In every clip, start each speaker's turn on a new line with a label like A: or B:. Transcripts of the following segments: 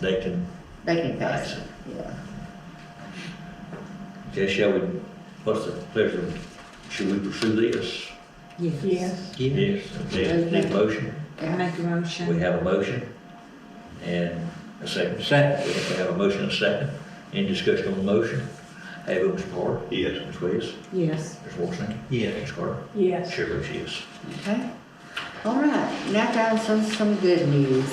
A: they can
B: They can
A: pass
B: pass
A: it.
B: it, yeah.
A: Okay, shall we, what's the pleasure, should we pursue this?
B: Yes.
C: Yeah.
A: Yes. Yes, need a motion,
B: Yeah.
D: Make a
A: we
D: motion.
A: have a motion and a second.
C: Second,
A: We have a motion and a second, any discussion on the motion? Have it, Mr. Carter?
E: Yes.
A: Ms. Wes?
D: Yes.
A: Ms. Wilson?
C: yeah.
A: Ms. Carter?
F: Yes.
A: Chair votes yes.
B: Okay. All right, now down some, some good news.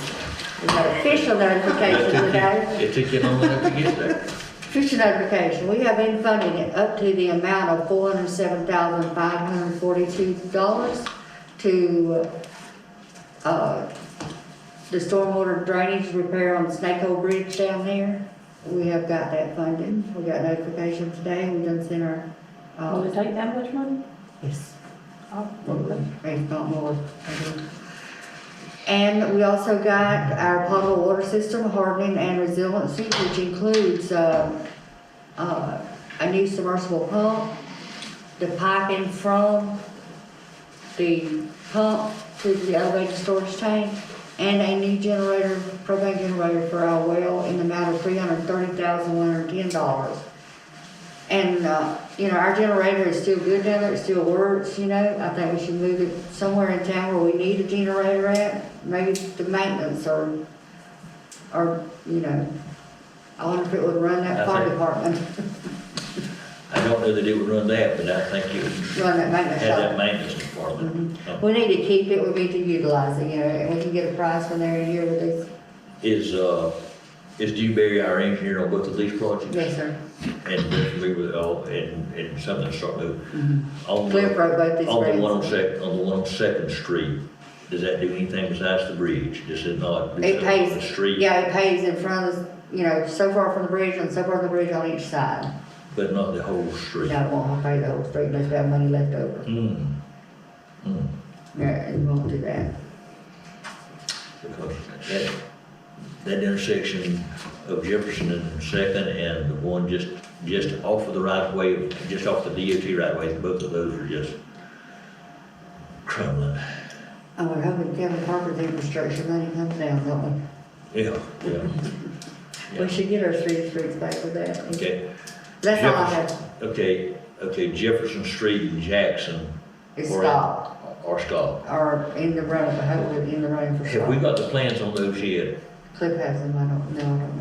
B: We got official notification today.
A: It took you long enough to get there.
B: Official notification, we have been funding it up to the amount of four hundred seven thousand five hundred forty-two dollars to, uh, the stormwater drainage repair on Snake Hole Bridge down there. We have got that funding. We got notification today. We done sent our,
F: Will
B: uh,
F: it take that much money?
B: yes.
F: Oh,
B: Maybe not more. And we also got our potable water system hardening and resiliency, which includes, uh, uh, a new submersible pump, the piping from the pump to the elevated storage tank, and a new generator, propane generator for our well in the amount of three hundred thirty thousand, one hundred ten dollars. And, uh, you know, our generator is still good down there, it still works, you know, I think we should move it somewhere in town where we need a generator at, maybe the maintenance or, or, you know, I wonder if it would run
A: I
B: that fire
A: think-
B: department,
A: I don't know that it would run that, but I think it would
B: run that maintenance
A: have that
B: shop.
A: maintenance department.
B: We need to keep it, we need to utilize it, you know, and we can get a price when they're here with these,
A: Is, uh, is Dewberry our engineer on both of these projects?
B: yes, sir.
A: And we're familiar with, all and, and something to start moving.
B: Mhm.
A: On the-
B: Cliff wrote both these
A: Mm-hmm. On the
B: grants.
A: one on Sec, on the one on Second Street, does that do anything besides the bridge? Does it not? do
B: It
A: something on
B: pays-
A: The street?
B: Yeah, it pays in front of, you know, so far from the bridge and so far from the bridge on each side.
A: But not the whole street?
B: No, it won't pay the whole street unless we have money left over.
A: Mm. Mm.
B: No, it won't do that.
A: Because that, that intersection of Jefferson and Second and the one just, just off of the right way, just off the DOT right way, both of those are just crumbling.
B: I would hope that Oh, Kevin Parker's infrastructure money comes down, don't
A: Yeah, yeah,
B: we? We should get our street streets back with that.
A: okay.
B: That's all I
A: Jefferson-
B: have.
A: Okay, okay, Jefferson Street and Jackson.
B: It's
A: are-
B: stopped,
A: Are stopped.
B: or in the run, hopefully in the run for
A: Have we
B: stop.
A: got the plans on those yet?
B: Cliff has them, I don't, no, I don't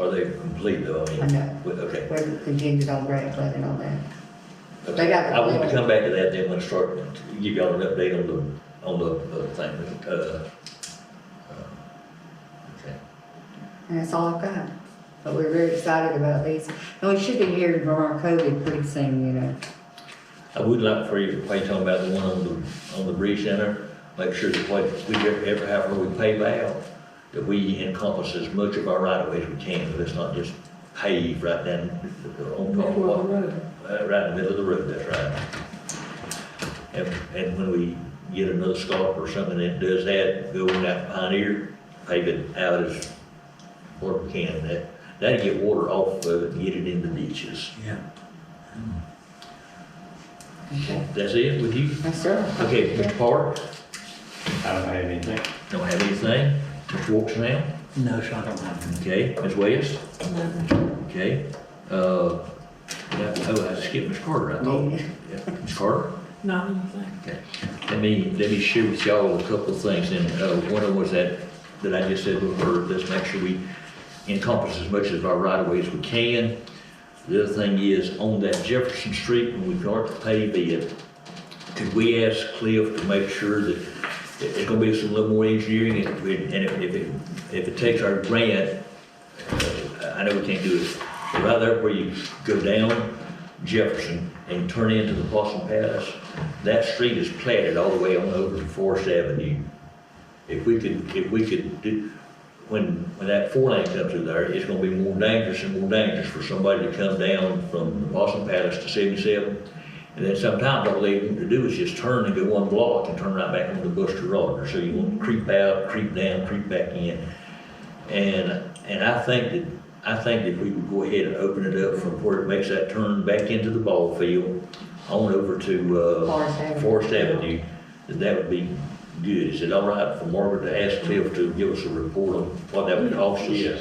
B: know.
A: Are they complete though? I mean,
B: I know.
A: we- Okay.
B: We're contingent on grant funding on that.
A: okay.
B: They got the
A: I want to
B: plans.
A: come back to that then when I start, to give y'all an update on the, on the, the thing, uh, okay.
B: And that's all I've got. But we're very excited about these. And we should be hearing from our COVID pretty soon, you know.
A: I would like for you, while you're talking about the one on the, on the bridge center, make sure that what we ever ever have where we pave out, that we encompass as much of our right of way as we can, that it's not just paved right down, on top of
F: Middle
A: what,
F: of the road.
A: uh, right in the middle of the road, that's right. And, and when we get another scarp or something that does that, go in that pioneer, pave it out as what we can, that, that'll get water off of it and get it in the ditches.
C: Yeah.
B: Okay.
A: That's it with you?
B: Yes, sir.
A: Okay, Mr. Park,
E: I don't have anything.
A: don't have anything. Ms. Wilks now,
C: No, sir, I don't have any.
A: okay, Ms. West, okay. Uh, yeah, oh, I skipped Ms. Carter, I thought. Yeah, Ms. Carter?
F: Not anything.
A: Okay. Let me, let me share with y'all a couple of things, and uh, one of them was that, that I just said before, let's make sure we encompass as much of our right of way as we can. The other thing is, on that Jefferson Street, when we start to pave it, could we ask Cliff to make sure that it- it's gonna be some little more engineering, and if we- and if if it, if it takes our grant, uh, I know we can't do it, but right there where you go down Jefferson and turn into the Possum Palace, that street is platted all the way on over to Forest Avenue. If we could, if we could do, when, when that four lane comes through there, it's gonna be more dangerous and more dangerous for somebody to come down from the Boston Palace to seventy-seven. And then sometimes all they want to do is just turn and go one block and turn right back onto Buster Rogers. So you want to creep out, creep down, creep back in. And, and I think that, I think if we would go ahead and open it up from where it makes that turn back into the ball field, on over to, uh.
B: Forest Avenue.
A: Forest Avenue, that that would be good. Is it all right for Margaret to ask Cliff to give us a report on what that would cost us?
E: Yes.